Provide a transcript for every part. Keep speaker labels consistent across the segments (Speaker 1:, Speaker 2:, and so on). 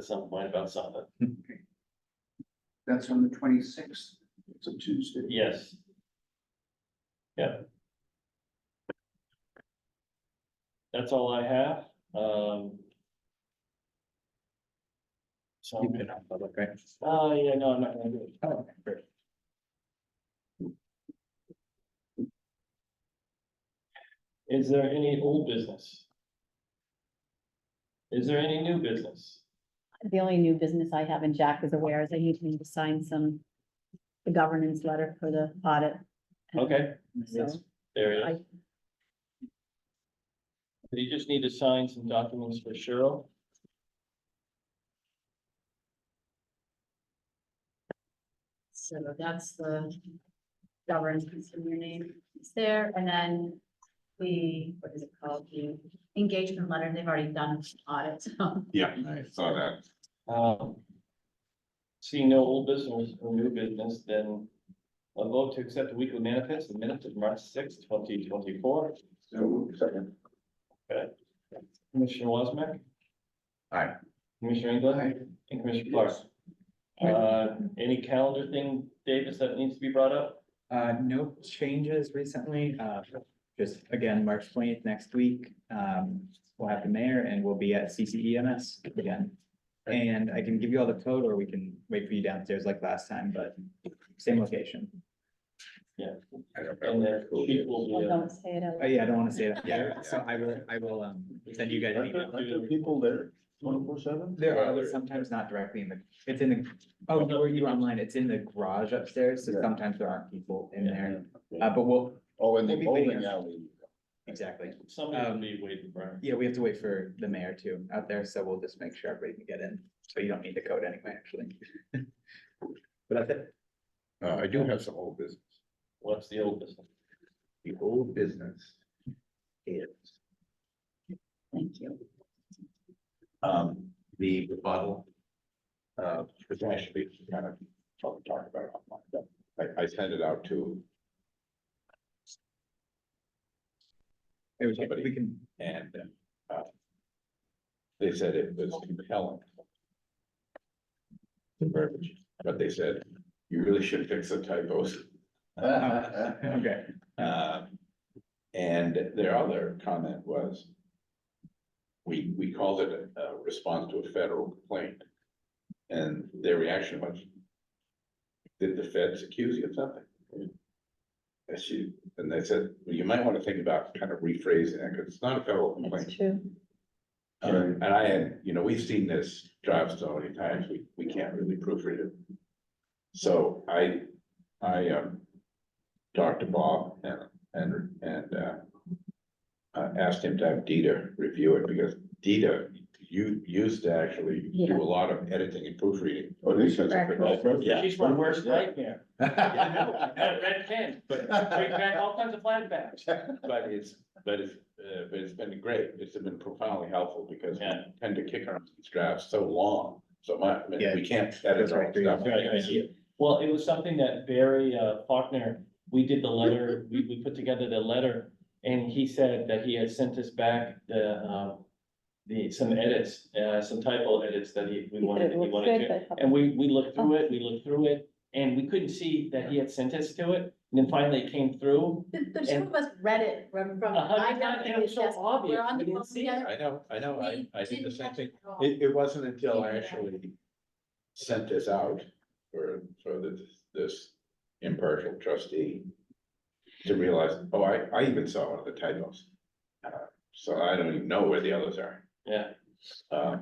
Speaker 1: said something might about something.
Speaker 2: That's on the twenty-sixth, it's a Tuesday.
Speaker 1: Yes. Yeah. That's all I have, um. So,
Speaker 3: You've been on public, right?
Speaker 1: oh, yeah, no, I'm not gonna do it.
Speaker 3: Oh, great.
Speaker 1: Is there any old business? Is there any new business?
Speaker 4: The only new business I have, and Jack is aware, is I need him to sign some the governance letter for the audit.
Speaker 1: Okay,
Speaker 4: So
Speaker 1: there it is.
Speaker 4: I,
Speaker 1: You just need to sign some documents for Cheryl.
Speaker 4: so that's the governance from your name is there, and then the, what is it called, the engagement letter, they've already done audit, so.
Speaker 5: Yeah, I saw that.
Speaker 1: Um, See no old business or new business, then a vote to accept the weekly manifest, the minutes of March sixth, twenty twenty-four.
Speaker 2: So, second.
Speaker 1: Commissioner Wasmac?
Speaker 5: Aye.
Speaker 1: Commissioner England? And Commissioner Clark? Uh, any calendar thing, Davis, that needs to be brought up?
Speaker 3: Uh, no changes recently, uh, just again, March twentieth next week, um, we'll have the mayor and we'll be at CCEMS again. And I can give you all the code or we can wait for you downstairs like last time, but same location.
Speaker 5: I don't
Speaker 1: And
Speaker 5: know.
Speaker 1: then she will be, uh,
Speaker 4: Don't say it out
Speaker 3: Oh,
Speaker 4: loud.
Speaker 3: yeah, I don't want to say it
Speaker 5: Yeah,
Speaker 3: here, so I will, I will, um, send you guys an email.
Speaker 2: people there twenty-four seven?
Speaker 3: There are sometimes not directly in the, it's in the, oh, no, you're online, it's in the garage upstairs, so
Speaker 2: Yeah.
Speaker 3: sometimes there aren't people in
Speaker 1: Yeah.
Speaker 3: there. Uh, but we'll,
Speaker 2: Oh, in
Speaker 3: the bowling
Speaker 2: alley.
Speaker 3: exactly.
Speaker 1: somebody will be waiting for her.
Speaker 3: Yeah, we have to wait for the mayor too out there, so we'll just make sure everybody can get in. So you don't need the code anyway, actually. But that's it.
Speaker 5: Uh, I do have some old business.
Speaker 1: What's the old business?
Speaker 5: The old business is,
Speaker 4: Thank you.
Speaker 5: um, the rebuttal. Uh, because actually, we kind of, probably talked about it online, but I, I sent it out to,
Speaker 3: It was- We can,
Speaker 5: and, uh, they said it was compelling. The verbiage, But they said, you really should fix the typos.
Speaker 3: okay,
Speaker 5: Um, And their other comment was. We, we called it a- a response to a federal complaint. And their reaction was. Did the feds accuse you of something? And she, and they said, well, you might want to think about kind of rephrasing it, because it's not a federal complaint.
Speaker 4: That's true.
Speaker 5: Um, And I had, you know, we've seen this drive so many times, we, we can't really proofread it. So I, I, um, talked to Bob and, and, and, uh, uh, asked him to have Dita review it because Dita, you used to actually do
Speaker 4: Yeah.
Speaker 5: a lot of editing and proofreading.
Speaker 2: Oh, this is.
Speaker 4: Correct.
Speaker 5: Yeah.
Speaker 1: She's my worst nightmare. I know, I had a red pen,
Speaker 5: But,
Speaker 1: bring back all kinds of flashbacks.
Speaker 5: but it's, but it's, uh, but it's been great, it's been profoundly helpful because we
Speaker 1: Yeah.
Speaker 5: tend to kick around these drafts so long, so much, I mean,
Speaker 3: Yeah.
Speaker 5: we can't edit
Speaker 3: That's
Speaker 5: our
Speaker 3: right, three.
Speaker 5: stuff.
Speaker 1: Right, right.
Speaker 3: Yeah.
Speaker 1: Well, it was something that Barry uh, Faulkner, we did the letter, we, we put together the letter, and he said that he had sent us back the, um, the, some edits, uh, some typo edits that he, we
Speaker 4: You said
Speaker 1: wanted,
Speaker 4: it
Speaker 1: he
Speaker 4: looked
Speaker 1: wanted
Speaker 4: good,
Speaker 1: to.
Speaker 4: but- Oh.
Speaker 1: And we, we looked through it, we looked through it, and we couldn't see that he had sent us to it, and then finally it came through.
Speaker 4: The, the two of us read it from, from.
Speaker 1: A
Speaker 5: Uh-huh.
Speaker 1: hundred
Speaker 4: I got
Speaker 1: times,
Speaker 4: it
Speaker 1: and it was so
Speaker 4: yes,
Speaker 1: obvious,
Speaker 4: We're
Speaker 1: we
Speaker 4: on the
Speaker 1: didn't
Speaker 4: phone
Speaker 1: see it.
Speaker 4: together.
Speaker 5: I know, I know, I, I did the same thing.
Speaker 4: It
Speaker 5: It, it wasn't until I actually sent this out for, for the, this impartial trustee to realize, oh, I, I even saw one of the typos. Uh, So I don't even know where the others are.
Speaker 1: Yeah.
Speaker 5: Uh,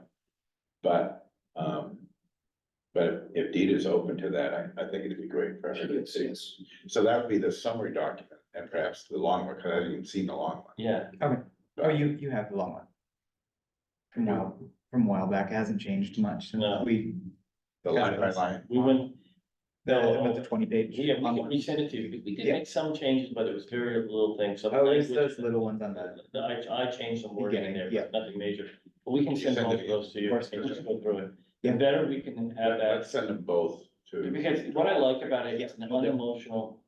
Speaker 5: But, um, but if Dita's open to that, I, I think it'd be great for her to see. So that would be the summary document and perhaps the long one, because I haven't even seen the long one.
Speaker 1: Yeah,
Speaker 3: oh, you, you have the long one. From a while, from a while back, it hasn't changed much. since
Speaker 1: No.
Speaker 3: We,
Speaker 5: The line by line.
Speaker 1: we went,
Speaker 3: the, about the twenty page.
Speaker 1: yeah, we can
Speaker 3: online.
Speaker 1: resend it to you, we did
Speaker 3: Yeah.
Speaker 1: make some changes, but it was very little things, so.
Speaker 3: Oh, it's
Speaker 1: language-
Speaker 3: those little ones on the,
Speaker 1: The- I, I changed some wording in there,
Speaker 3: Yeah.
Speaker 1: but nothing major. But we can
Speaker 5: You
Speaker 1: send
Speaker 5: send
Speaker 1: all
Speaker 5: it
Speaker 1: of those to you
Speaker 3: Of course.
Speaker 1: and just go through it.
Speaker 3: Yeah.
Speaker 1: The better we can have that,
Speaker 5: Let's send them both to.
Speaker 1: because what I like about it, it's
Speaker 3: Yeah.
Speaker 1: an unemotional,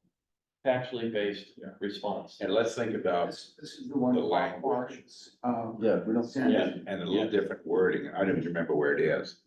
Speaker 1: factually based
Speaker 5: Yeah.
Speaker 1: response.
Speaker 5: And let's think about,
Speaker 2: This, this is the one.
Speaker 5: The language.
Speaker 2: Um,
Speaker 6: Yeah, we don't.
Speaker 2: sent.
Speaker 1: Yeah.
Speaker 5: and a little different wording, I don't even remember where it is,